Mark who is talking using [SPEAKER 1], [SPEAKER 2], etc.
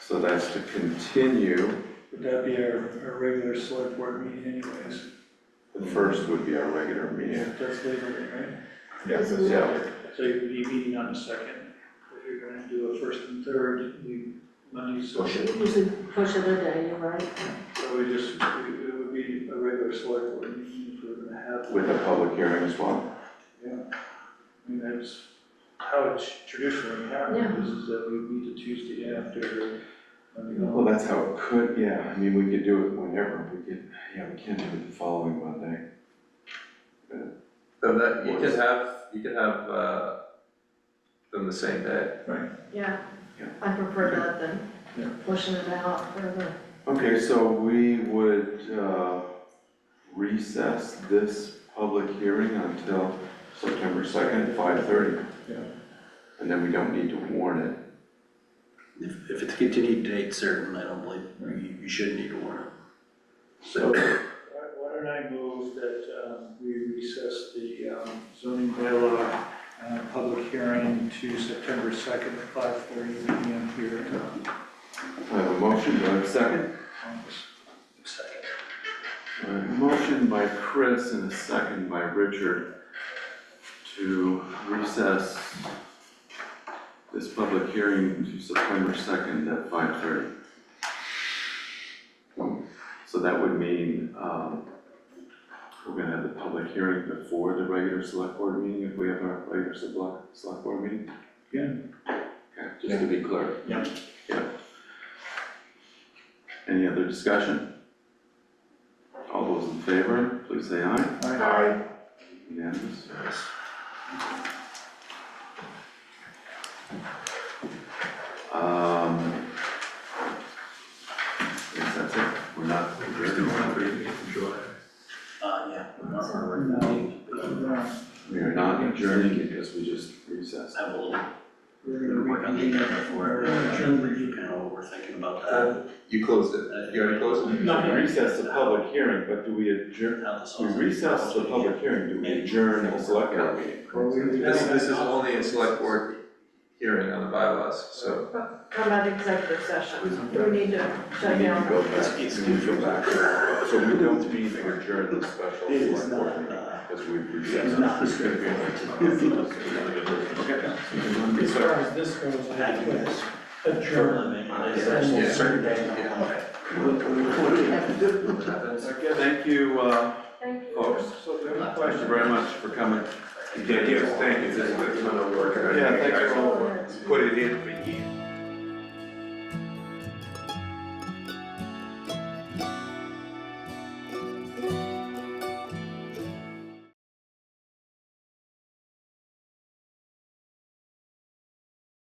[SPEAKER 1] So that's to continue,
[SPEAKER 2] Would that be our, our regular select board meeting anyways?
[SPEAKER 1] the first would be our regular meeting.
[SPEAKER 2] That's Labor
[SPEAKER 3] Yes.
[SPEAKER 1] Yeah,
[SPEAKER 2] Day, right? So you'd be meeting on the second. If you're gonna do a first and third, we, Monday's, so
[SPEAKER 3] Push it.
[SPEAKER 4] Usually push it a day, you're right.
[SPEAKER 2] we just, we- it would be a regular select board meeting if we're gonna have.
[SPEAKER 1] with a public hearing as well.
[SPEAKER 2] Yeah, I mean, that's how it's traditionally
[SPEAKER 4] Yeah.
[SPEAKER 2] happened, is is that we meet the Tuesday after, Monday.
[SPEAKER 1] Well, that's how it could, yeah, I mean, we could do it whenever, we could, yeah, we can't do it the following Monday.
[SPEAKER 5] So that, you could have, you could have, uh, them the same day.
[SPEAKER 4] Yeah,
[SPEAKER 1] Yeah.
[SPEAKER 4] I prefer that than
[SPEAKER 2] Yeah.
[SPEAKER 4] pushing it out further.
[SPEAKER 1] Okay, so we would uh, recess this public hearing until September second, five thirty.
[SPEAKER 2] Yeah.
[SPEAKER 1] And then we don't need to warn it.
[SPEAKER 6] If, if it's continued date certain, I don't believe, you, you should need to warn it.
[SPEAKER 2] So, why why don't I move that um, we recess the um, zoning bylaw uh, public hearing to September 2nd, 5:30 PM here in uh,
[SPEAKER 1] I have a motion, do I have a second?
[SPEAKER 2] Congress.
[SPEAKER 1] I have a motion by Chris and a second by Richard to recess this public hearing to September second at five thirty. So that would mean, um, we're gonna have the public hearing before the regular select board meeting, if we have our regular select, select board meeting?
[SPEAKER 2] Yeah.
[SPEAKER 1] Okay, just to be clear.
[SPEAKER 2] Yeah.
[SPEAKER 1] Yeah. Any other discussion? All those in favor, please say aye.
[SPEAKER 2] All right.
[SPEAKER 4] Aye.
[SPEAKER 1] Unanimous? Um. Yes, that's it, we're not.
[SPEAKER 6] Uh, yeah. we're not- we're
[SPEAKER 2] No.
[SPEAKER 6] not leaving, but I'm-
[SPEAKER 2] Uh,
[SPEAKER 1] We are not adjourning because we just recessed.
[SPEAKER 6] Have a little,
[SPEAKER 2] We're
[SPEAKER 6] bit of work
[SPEAKER 2] gonna
[SPEAKER 6] on
[SPEAKER 2] reconvene
[SPEAKER 6] the
[SPEAKER 2] at
[SPEAKER 6] agenda for,
[SPEAKER 2] our June
[SPEAKER 6] you
[SPEAKER 2] review.
[SPEAKER 6] know, we're thinking about that. Uh,
[SPEAKER 5] You closed it, you already closed it?
[SPEAKER 1] Not recess the public hearing, but do we adjourn,
[SPEAKER 6] How this all-
[SPEAKER 1] we recess the public hearing, do we adjourn the select board meeting?
[SPEAKER 2] Or we- we
[SPEAKER 5] This,
[SPEAKER 2] don't
[SPEAKER 5] this
[SPEAKER 2] have
[SPEAKER 5] is
[SPEAKER 2] to-
[SPEAKER 5] only a select board hearing on the bylaws, so.
[SPEAKER 4] How about executive session? Do we need to
[SPEAKER 1] We
[SPEAKER 4] shut
[SPEAKER 1] need to go
[SPEAKER 4] down?
[SPEAKER 1] back, we need to go back. So we don't mean to adjourn the special
[SPEAKER 6] It is
[SPEAKER 1] select board
[SPEAKER 6] not,
[SPEAKER 1] meeting,
[SPEAKER 6] uh,
[SPEAKER 1] because we've
[SPEAKER 6] It's
[SPEAKER 1] recessed.
[SPEAKER 6] not straightforward to.
[SPEAKER 7] As far as this goes, I
[SPEAKER 6] I
[SPEAKER 7] have
[SPEAKER 6] do
[SPEAKER 7] to
[SPEAKER 6] this.
[SPEAKER 7] adjourn.
[SPEAKER 5] Yeah.
[SPEAKER 7] Certain day.
[SPEAKER 5] Yeah.
[SPEAKER 1] Thank you, uh,
[SPEAKER 4] Thank you.
[SPEAKER 1] folks.
[SPEAKER 2] So the only
[SPEAKER 1] Thank you
[SPEAKER 2] question,
[SPEAKER 1] very much for coming.
[SPEAKER 5] thank you, this is a ton of work.
[SPEAKER 1] Yeah, thanks for all the work.
[SPEAKER 5] Put it in for years.